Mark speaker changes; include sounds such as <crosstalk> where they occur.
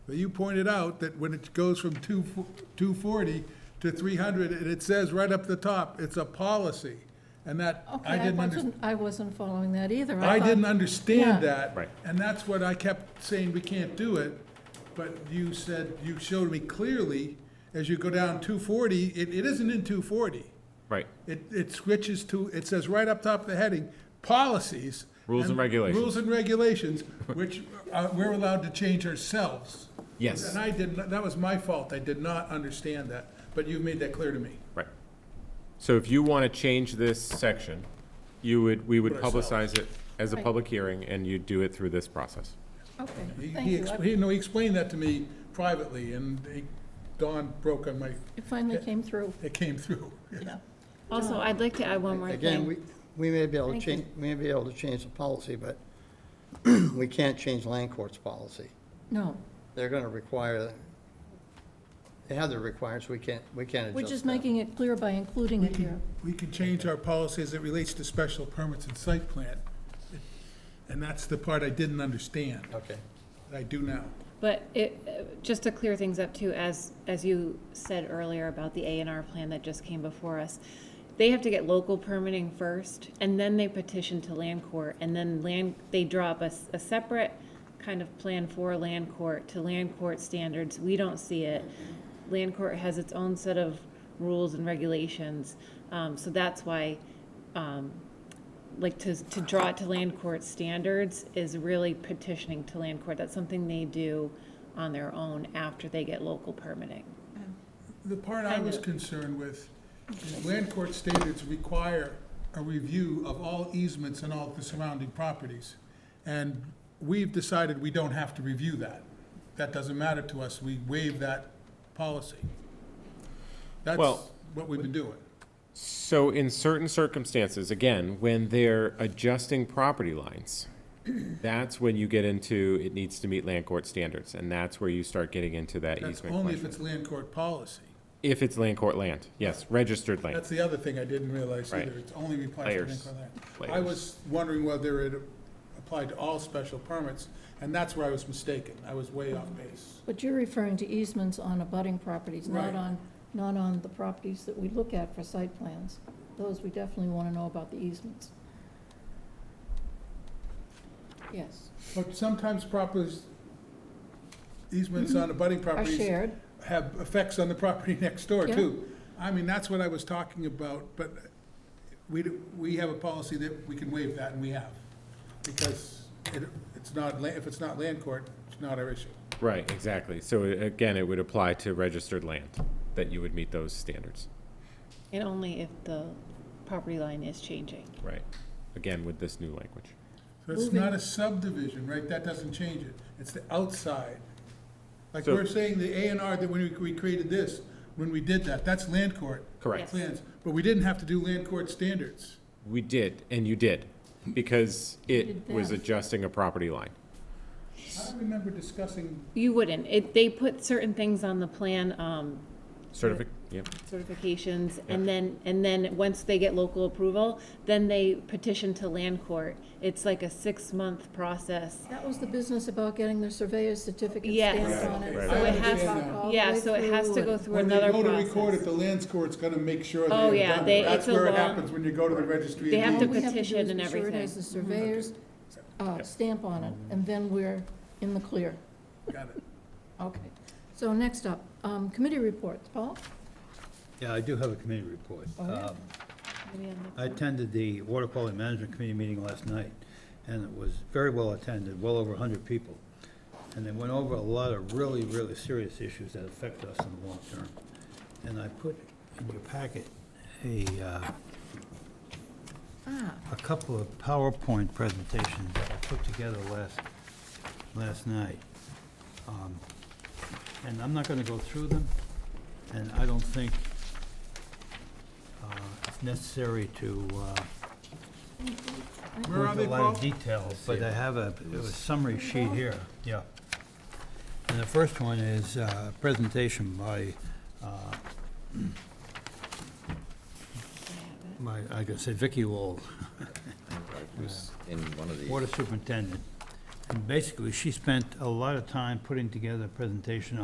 Speaker 1: But you pointed out that when it goes from two, two forty to three hundred, and it says right up the top, it's a policy. And that,
Speaker 2: Okay,
Speaker 1: I
Speaker 2: I
Speaker 1: didn't under,
Speaker 2: wasn't, I wasn't following that either.
Speaker 1: I
Speaker 2: thought-
Speaker 1: didn't understand
Speaker 2: Yeah.
Speaker 1: that.
Speaker 3: Right.
Speaker 1: And that's what I kept saying, we can't do it, but you said, you showed me clearly, as you go down two forty, it, it isn't in two forty.
Speaker 3: Right.
Speaker 1: It, it switches to, it says right up top of the heading, policies.
Speaker 3: Rules and regulations.
Speaker 1: Rules and regulations, which uh, we're allowed to change ourselves.
Speaker 3: Yes.
Speaker 1: And I did, not that was my fault, I did not understand that, but you've made that clear to me.
Speaker 3: Right. So if you want to change this section, you would, we would
Speaker 1: Put ourselves.
Speaker 3: publicize it as a
Speaker 2: Right.
Speaker 3: public hearing, and you'd do it through this process.
Speaker 2: Okay,
Speaker 1: He-
Speaker 2: thank
Speaker 1: He,
Speaker 2: you.
Speaker 1: ex-
Speaker 2: I-
Speaker 1: he, no, he explained that to me privately, and he- Dawn broke on my,
Speaker 2: It finally came through.
Speaker 1: it came through. <laughs>
Speaker 4: Also, I'd like to add one more
Speaker 5: Again, we,
Speaker 4: thing.
Speaker 5: we may be able to
Speaker 4: Thank you.
Speaker 5: change, we may be able to change the policy, but <clears throat> we can't change land court's policy.
Speaker 2: No,
Speaker 5: They're gonna require, they have their requirements, we can't, we can't adjust
Speaker 2: we're just
Speaker 5: that.
Speaker 2: making it clear by including it here.
Speaker 1: We can change our policy as it relates to special permits and site plan. And that's the part I didn't understand,
Speaker 5: Okay.
Speaker 1: that I do now.
Speaker 4: But it, uh, just to clear things up too, as, as you said earlier about the A and R plan that just came before us, they have to get local permitting first, and then they petition to land court, and then land, they draw up a, s- a separate kind of plan for land court to land court standards. We don't see it. Land court has its own set of rules and regulations, um, so that's why, um, like to, to draw it to land court standards is really petitioning to land court. That's something they do on their own after they get local permitting.
Speaker 1: The part I
Speaker 4: Kind
Speaker 1: was
Speaker 4: of.
Speaker 1: concerned with, is land court standards require a review of all easements and all the surrounding properties. And we've decided we don't have to review that. That doesn't matter to us, we waive that policy. That's
Speaker 3: Well-
Speaker 1: what we've been doing.
Speaker 3: So in certain circumstances, again, when they're adjusting
Speaker 1: <clears throat>
Speaker 3: property lines, that's when you get into, it needs to meet land court standards, and that's where you start getting into that
Speaker 1: That's
Speaker 3: easement
Speaker 1: only if
Speaker 3: question.
Speaker 1: it's land court policy.
Speaker 3: If it's land court land, yes, registered land.
Speaker 1: That's the other thing I didn't realize
Speaker 3: Right.
Speaker 1: either, it's only applies to
Speaker 3: Layers.
Speaker 1: Lincoln Land. I
Speaker 3: Layers.
Speaker 1: was wondering whether it applied to all special permits, and that's where I was mistaken, I was way off base.
Speaker 2: But you're referring to easements on abutting properties, not
Speaker 1: Right.
Speaker 2: on, not on the properties that we look at for site plans. Those, we definitely want to know about the easements. Yes,
Speaker 1: But sometimes properties, easements on abutting
Speaker 2: Mm-hmm. are
Speaker 1: properties
Speaker 2: shared.
Speaker 1: have effects on the property <laughs> next door
Speaker 2: Yeah.
Speaker 1: too. I mean, that's what I was talking about, but we, do- we have a policy that we can waive that, and we have. Because it, it's not, la- if it's not land court, it's not our issue.
Speaker 3: Right, exactly. So a- again, it would apply to registered land, that you would meet those standards.
Speaker 4: And only if the property line is changing.
Speaker 3: Right. Again, with this new language.
Speaker 1: So it's
Speaker 2: Moving-
Speaker 1: not a subdivision, right? That doesn't change it. It's the outside. Like
Speaker 3: So-
Speaker 1: we're saying the A and R that when we- we created this, when we did that, that's land court
Speaker 3: Correct.
Speaker 4: Yes.
Speaker 1: plans. But we didn't have to do land court standards.
Speaker 3: We did, and you did, because it
Speaker 2: did
Speaker 3: was
Speaker 2: that.
Speaker 3: adjusting a property line.
Speaker 1: I don't remember discussing,
Speaker 4: You wouldn't. It, they put certain things on the plan, um,
Speaker 3: Certific, yep.
Speaker 4: certifications,
Speaker 3: Yeah.
Speaker 4: and then, and then, once they get local approval, then they petition to land court. It's like a six-month process.
Speaker 2: That was the business about getting their surveyor's certificate
Speaker 4: Yes.
Speaker 2: stamped on it.
Speaker 1: Right,
Speaker 4: So it
Speaker 1: I
Speaker 4: has,
Speaker 1: understand now.
Speaker 2: All the
Speaker 4: yeah,
Speaker 2: way
Speaker 4: so it has to
Speaker 2: through
Speaker 4: go
Speaker 2: and-
Speaker 4: through
Speaker 1: when
Speaker 4: another
Speaker 1: they go
Speaker 4: process.
Speaker 1: to record it, the land court's gonna make sure they
Speaker 4: Oh,
Speaker 1: have
Speaker 4: yeah,
Speaker 1: done.
Speaker 4: they-
Speaker 1: it. That's
Speaker 4: it's a
Speaker 1: where it
Speaker 4: long-
Speaker 1: happens when you go to the registry.
Speaker 4: They
Speaker 1: of
Speaker 4: have to
Speaker 1: deeds.
Speaker 2: All we have to do
Speaker 4: petition
Speaker 2: is
Speaker 4: and
Speaker 2: be sure it
Speaker 4: everything.
Speaker 2: has the surveyor's uh, stamp on it, and then we're in the clear.
Speaker 1: Got it.
Speaker 2: Okay. So next up, um, committee reports. Paul?
Speaker 6: Yeah, I do have a committee report.
Speaker 2: Oh, yeah.
Speaker 6: Um,
Speaker 4: Maybe on the-
Speaker 6: I attended the Water Quality Management Committee meeting last night, and it was very well attended, well over 100 people. And they went over a lot of really, really serious issues that affect us in the long term. And I put in your packet a, uh,
Speaker 2: Ah.
Speaker 6: a couple of PowerPoint presentations that I put together last, last night. Um, And I'm not going to go through them, and I don't think uh, it's necessary to uh,
Speaker 1: Where
Speaker 6: go
Speaker 1: are
Speaker 6: into
Speaker 1: they,
Speaker 6: a lot
Speaker 1: Paul?
Speaker 6: of detail, but I have a a summary sheet here, yeah. And the first one is uh, presentation by, uh, my, I guess, Vicky Wall,
Speaker 7: It was in one of the,
Speaker 6: Water Superintendent. And basically, she spent a lot of time putting together a presentation